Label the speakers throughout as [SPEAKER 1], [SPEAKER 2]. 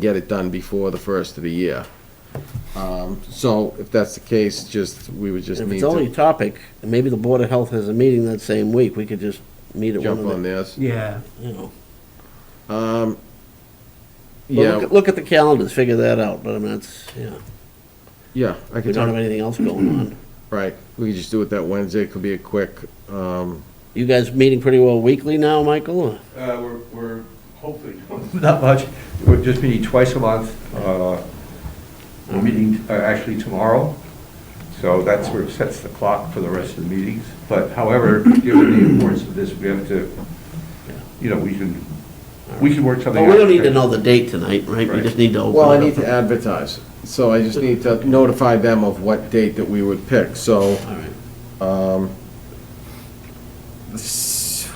[SPEAKER 1] get it done before the first of the year. Um, So if that's the case, just, we would just
[SPEAKER 2] If
[SPEAKER 1] need
[SPEAKER 2] it's only a
[SPEAKER 1] to
[SPEAKER 2] topic, and maybe the Board of Health has a meeting that same week, we could just meet at one
[SPEAKER 1] jump on
[SPEAKER 2] of the,
[SPEAKER 1] this.
[SPEAKER 3] Yeah,
[SPEAKER 2] you know. Well,
[SPEAKER 1] Yeah,
[SPEAKER 2] look- Look at the calendars, figure that out, but I mean, it's, yeah,
[SPEAKER 1] yeah, I
[SPEAKER 2] we
[SPEAKER 1] could
[SPEAKER 2] don't have
[SPEAKER 1] talk,
[SPEAKER 2] anything else going on.
[SPEAKER 1] right, we could just do it that Wednesday, it could be a quick, um,
[SPEAKER 2] You guys meeting pretty well weekly now, Michael? or-
[SPEAKER 4] Uh, We're we're hopefully,
[SPEAKER 3] not much.
[SPEAKER 4] we're just meeting twice a month. Uh, We're meeting uh, actually tomorrow, so that's where it sets the clock for the rest of the meetings. But however, given the importance of this, we have to, you know, we can, we can work something
[SPEAKER 2] Well,
[SPEAKER 4] out.
[SPEAKER 2] we don't need to know the date tonight, right? We
[SPEAKER 4] Right.
[SPEAKER 2] just need to open it up.
[SPEAKER 1] well, I need to advertise. So I just need to notify them of what date that we would pick, so.
[SPEAKER 2] All right.
[SPEAKER 1] Um, s-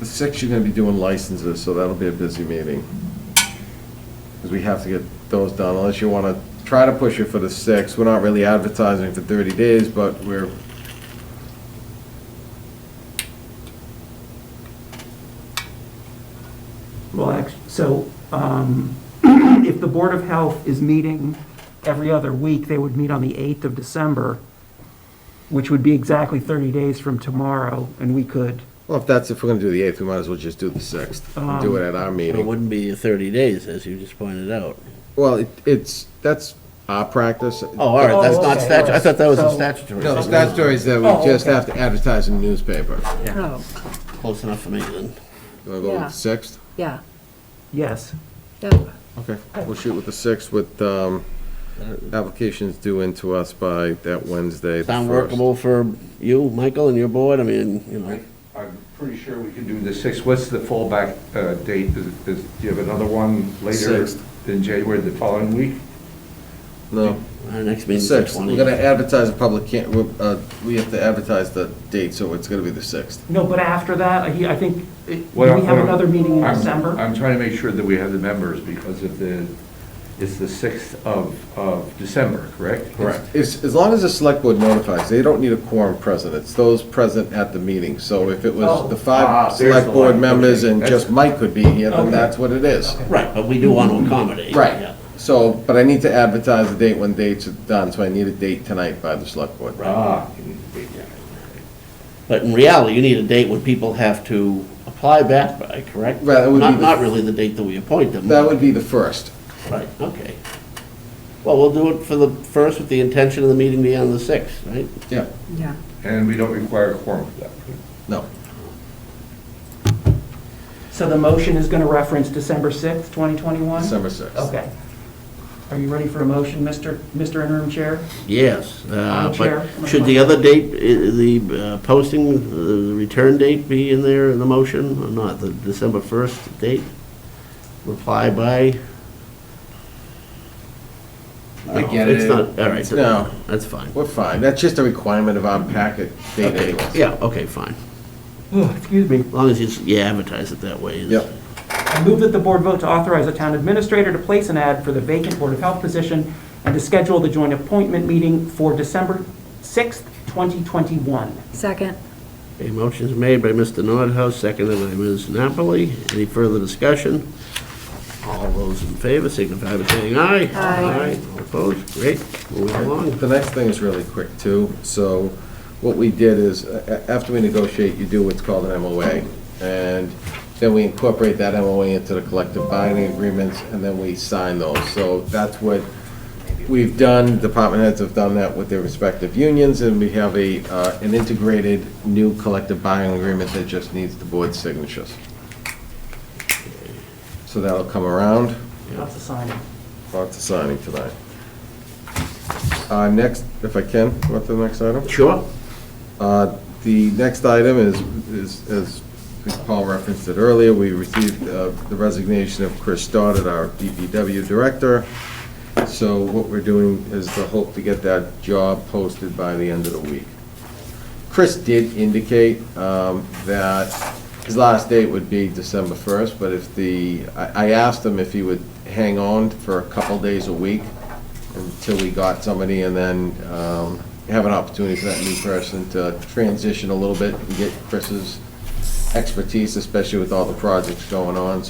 [SPEAKER 1] The sixth, you're gonna be doing licenses, so that'll be a busy meeting. Because we have to get those done, unless you wanna try to push it for the sixth. We're not really advertising for thirty days, but we're.
[SPEAKER 3] Well, act- so um, if the Board of Health is meeting every other week, they would meet on the 8th of December, which would be exactly 30 days from tomorrow, and we could,
[SPEAKER 1] Well, if that's, if we're gonna do the eighth, we might as well just do the sixth. Do it at our
[SPEAKER 2] It
[SPEAKER 1] meeting.
[SPEAKER 2] wouldn't be 30 days, as you just pointed out.
[SPEAKER 1] Well, it- it's, that's our practice.
[SPEAKER 2] Oh, all right, that's
[SPEAKER 3] Oh,
[SPEAKER 2] not
[SPEAKER 3] okay.
[SPEAKER 2] statu, I thought that was a
[SPEAKER 3] So-
[SPEAKER 2] statutory.
[SPEAKER 1] No, the
[SPEAKER 2] thing.
[SPEAKER 1] statutory is that
[SPEAKER 3] Oh,
[SPEAKER 1] we just
[SPEAKER 3] okay.
[SPEAKER 1] have to advertise in the newspaper.
[SPEAKER 3] Oh.
[SPEAKER 2] Close enough for me then.
[SPEAKER 1] You wanna go with
[SPEAKER 5] Yeah.
[SPEAKER 1] the sixth?
[SPEAKER 5] Yeah,
[SPEAKER 3] yes.
[SPEAKER 5] yeah.
[SPEAKER 1] Okay, we'll shoot with the sixth with, um, applications due in to us by that Wednesday. the
[SPEAKER 2] Sound
[SPEAKER 1] 1st.
[SPEAKER 2] workable for you, Michael, and your board? I mean, you know,
[SPEAKER 4] I'm pretty sure we can do the 6th. What's the fallback uh, date? Is it- is- Do you have another one later
[SPEAKER 1] Sixth.
[SPEAKER 4] in January, the following week?
[SPEAKER 1] No,
[SPEAKER 2] our next meeting's the
[SPEAKER 1] sixth, we're
[SPEAKER 2] 20th.
[SPEAKER 1] gonna advertise a public, can- we're, uh, we have to advertise the date, so it's gonna be the sixth.
[SPEAKER 3] No, but after that, I I think, uh, do we
[SPEAKER 4] Well,
[SPEAKER 3] have
[SPEAKER 4] well,
[SPEAKER 3] another meeting in
[SPEAKER 4] I'm-
[SPEAKER 3] December?
[SPEAKER 4] I'm trying to make sure that we have the members, because if the, it's the 6th of, of December, correct?
[SPEAKER 1] As, as long as the select board notifies, they don't need a quorum present, it's those present at the meeting. So if it was
[SPEAKER 3] Oh.
[SPEAKER 1] the
[SPEAKER 4] Ah,
[SPEAKER 1] five
[SPEAKER 4] there's
[SPEAKER 1] select
[SPEAKER 4] the
[SPEAKER 1] board
[SPEAKER 4] line.
[SPEAKER 1] members
[SPEAKER 4] Okay,
[SPEAKER 1] and
[SPEAKER 4] that's-
[SPEAKER 1] just Mike could be here, then
[SPEAKER 3] Okay.
[SPEAKER 1] that's what it is.
[SPEAKER 2] Right, but we do want to accommodate.
[SPEAKER 1] Right,
[SPEAKER 2] yeah.
[SPEAKER 1] so, but I need to advertise the date when dates are done, so I need a date tonight by the select board.
[SPEAKER 4] Ah,
[SPEAKER 2] But in reality, you need a date when people have to apply back by, correct?
[SPEAKER 1] Right, that would be
[SPEAKER 2] Not,
[SPEAKER 1] the-
[SPEAKER 2] not really the date that we appoint them.
[SPEAKER 1] That would be the first.
[SPEAKER 2] Right, okay. Well, we'll do it for the first with the intention of the meeting being on the sixth, right?
[SPEAKER 1] Yeah.
[SPEAKER 5] Yeah.
[SPEAKER 4] and we don't require a quorum for that.
[SPEAKER 1] No.
[SPEAKER 3] So the motion is going to reference December 6th, 2021?
[SPEAKER 1] December 6th.
[SPEAKER 3] Okay. Are you ready for a motion, Mr. Mr. Interim Chair?
[SPEAKER 2] Yes, uh,
[SPEAKER 3] Madam Chair.
[SPEAKER 2] but should the other date, i- the uh, posting, uh, the return date be in there in the motion or not? The December 1st date? Reply by?
[SPEAKER 1] I get
[SPEAKER 2] It's
[SPEAKER 1] it.
[SPEAKER 2] not, all right.
[SPEAKER 1] No.
[SPEAKER 2] That's fine.
[SPEAKER 1] We're fine. That's just a requirement of our packet date
[SPEAKER 2] Okay,
[SPEAKER 1] anyways.
[SPEAKER 2] Yeah, okay, fine.
[SPEAKER 3] Oh, Excuse me.
[SPEAKER 2] As long as you, s- you advertise it that way.
[SPEAKER 1] Yep.
[SPEAKER 3] I move that the board vote to authorize the town administrator to place an ad for the vacant Board of Health position and to schedule the joint appointment meeting for December 6th, 2021.
[SPEAKER 5] Second,
[SPEAKER 2] A motion is made by Mr. Nordhaus, seconded by Ms. Napoli. Any further discussion? All those in favor signify by saying aye.
[SPEAKER 5] Aye.
[SPEAKER 2] All Opposed? Great, moving along.
[SPEAKER 1] The next thing is really quick too. So what we did is, a- a- after we negotiate, you do what's called an MOA. And then we incorporate that MOA into the collective bargaining agreements and then we sign those. So that's what we've done, department heads have done that with their respective unions and we have a, uh, an integrated new collective bargaining agreement that just needs the board's signatures. So that'll come around.
[SPEAKER 3] Lots of signing.
[SPEAKER 1] Lots of signing tonight. Uh, Next, if I can, what the next item?
[SPEAKER 2] Sure?
[SPEAKER 1] Uh, The next item is, is as Paul referenced it earlier, we received uh, the resignation of Chris Stoddard, our DPW director. So what we're doing is the hope to get that job posted by the end of the week. Chris did indicate um, that his last date would be December 1st, but if the, I I asked him if he would hang on for a couple days a week until we got somebody, and then um, have an opportunity for that new person to transition a little bit and get Chris's expertise, especially with all the projects going on,